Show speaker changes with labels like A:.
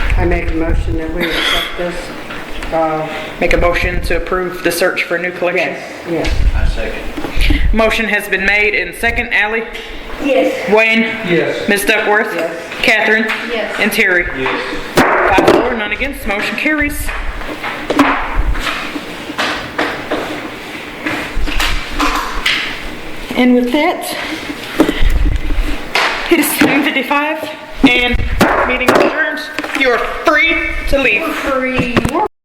A: I make a motion that we accept this. Uh,
B: Make a motion to approve the search for a new collection.
A: Yes, yes.
C: I second.
B: Motion has been made and second. Ally?
A: Yes.
B: Wayne?
C: Yes.
B: Ms. Duckworth?
A: Yes.
B: Catherine?
D: Yes.
B: And Terry?
C: Yes.
B: Five zero, none against, motion carries. And with that, it is 7:55 and meeting adjourned. You are free to leave.
D: Free.